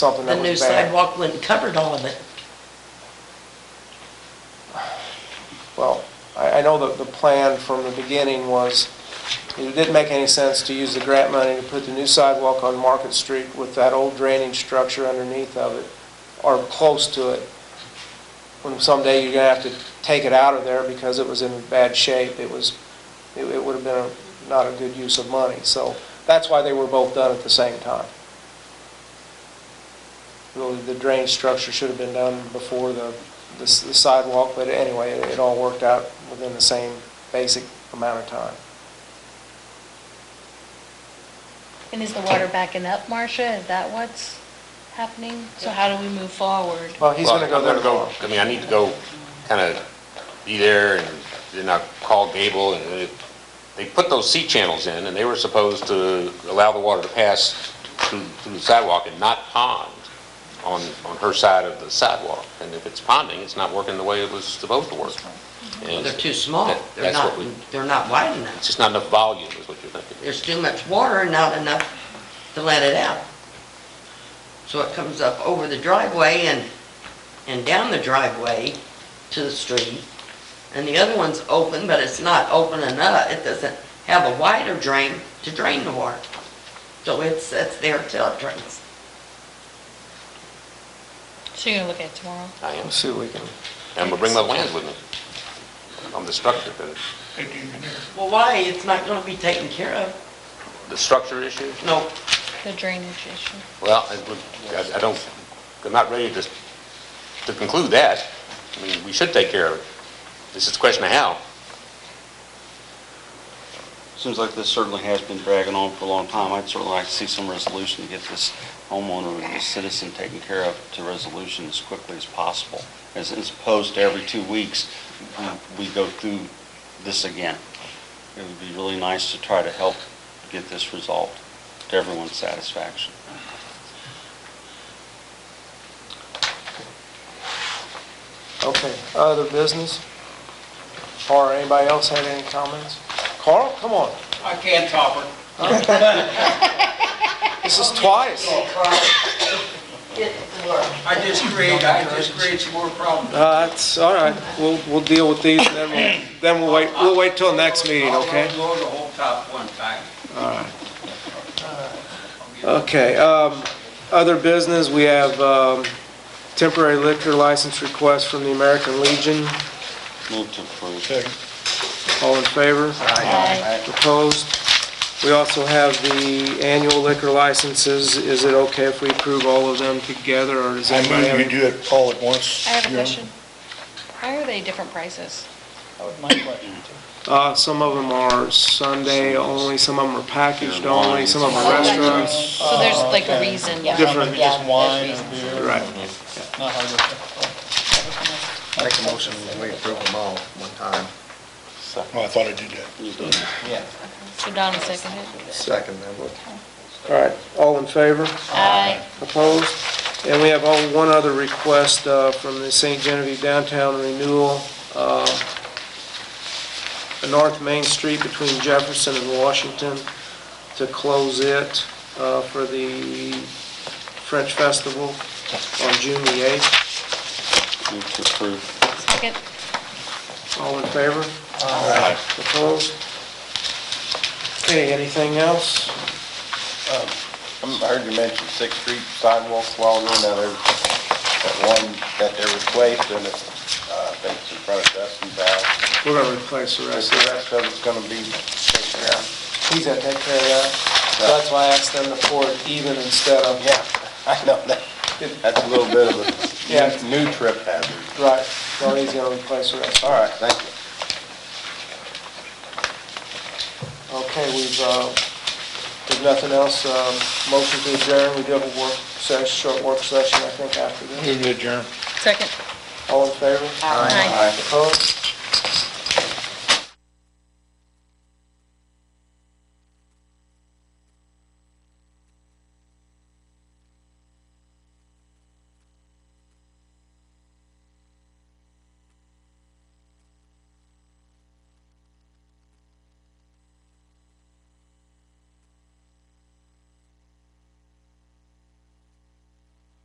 something The that new was bad. sidewalk wouldn't covered all of it. Well, I, I know that the plan from the beginning was, it didn't make any sense to use the grant money to put the new sidewalk on Market Street with that old drainage structure underneath of it, or close to it. When someday you're gonna have to take it out of there because it was in bad shape, it was, it, it would've been a- not a good use of money. So that's why they were both done at the same time. Really, the drainage structure should have been done before the, the s- the sidewalk, but anyway, it it all worked out within the same basic amount of time. And is the water backing up, Marcia? Is that what's happening? So how do we move forward? Well, he's gonna Well, go I'm there gonna tomorrow. I mean, I need to go kind of be there and then I'll call Gable and it- they put those C channels in and they were supposed to allow the water to pass through, through the sidewalk and not pond on, on her side of the sidewalk. And if it's ponding, it's not working the way it was supposed to work. Well, And They're too small. That- They're that's not, what we- they're not wide enough. It's just not enough volume is what you're thinking. There's too much water and not enough to let it out. So it comes up over the driveway and, and down the driveway to the street. And the other one's open, but it's not open enough. It doesn't have a wider drain to drain the water. So it's, it's there till it drains. So you're gonna look at it tomorrow? I Let's am, and see if we can, I'm gonna bring my plans with me. On the structure, the, Well, why? It's not gonna be taken care of. the structure issue. No, The drainage issue. Well, I would- I- I don't, I'm not ready to, to conclude that. I mean, we should take care of it. This is a question of how. Seems like this certainly has been dragging on for a long time. I'd certainly like to see some resolution to get this homeowner, or this citizen taken care of to resolution as quickly as possible. As as opposed to every two weeks, uh, we go through this again. It would be really nice to try to help get this resolved to everyone's satisfaction. okay, other business? Or anybody else had any comments? Carl, come on, I can't top her. this is twice. get to work. I just create, I just create some more problems. Uh, it's, all right, we'll, we'll deal with these, and then we'll, then we'll wait, we'll wait till next meeting, okay? I'll blow the whole top one time. Okay, um, other business, we have, um, temporary liquor license request from the American Legion. Move to approve. All in favor? Aye. Opposed? We also have the annual liquor licenses. Is it okay if we approve all of them together, or does I anybody move have we any? do it all at once. I have a Your Honor. question. Why are they different prices? Uh, some of them are Sunday only, some of them are packaged Yeah, wine. only, some of them are restaurants. So there's like a reason. Uh, Yeah. Different. Maybe Just wine and beer. Right. Not hard. Make a motion, we approve them all one time. Well, I thought I did that. So Donna seconded. Second, then we'll All right, all in favor? Aye. Opposed? And we have all- one other request uh, from the St. Genevieve Downtown Renewal, uh, North Main Street between Jefferson and Washington, to close it uh, for the French Festival on June the 8th. Move to approve. Second. All in favor? Aye. Opposed? Okay, anything else? I heard you mention Sixth Street sidewalks while ago, now there's that one that they replaced, and it's, uh, I think it's in front of Dustin's house. We're going to replace the Is rest the of it. rest of it's gonna be taken out? He's going to take care of that. So That's why I asked them to pour it even instead of Yeah, I know that, that's a little bit of Yeah. a new new trip hazard. Right, well, he's gonna replace the rest. All right, thank you. Okay, we've, uh, if nothing else, um, motion to adjourn, we do have a work session, short work session, I think, after this. Move to adjourn. Second. All in favor? Aye. Opposed?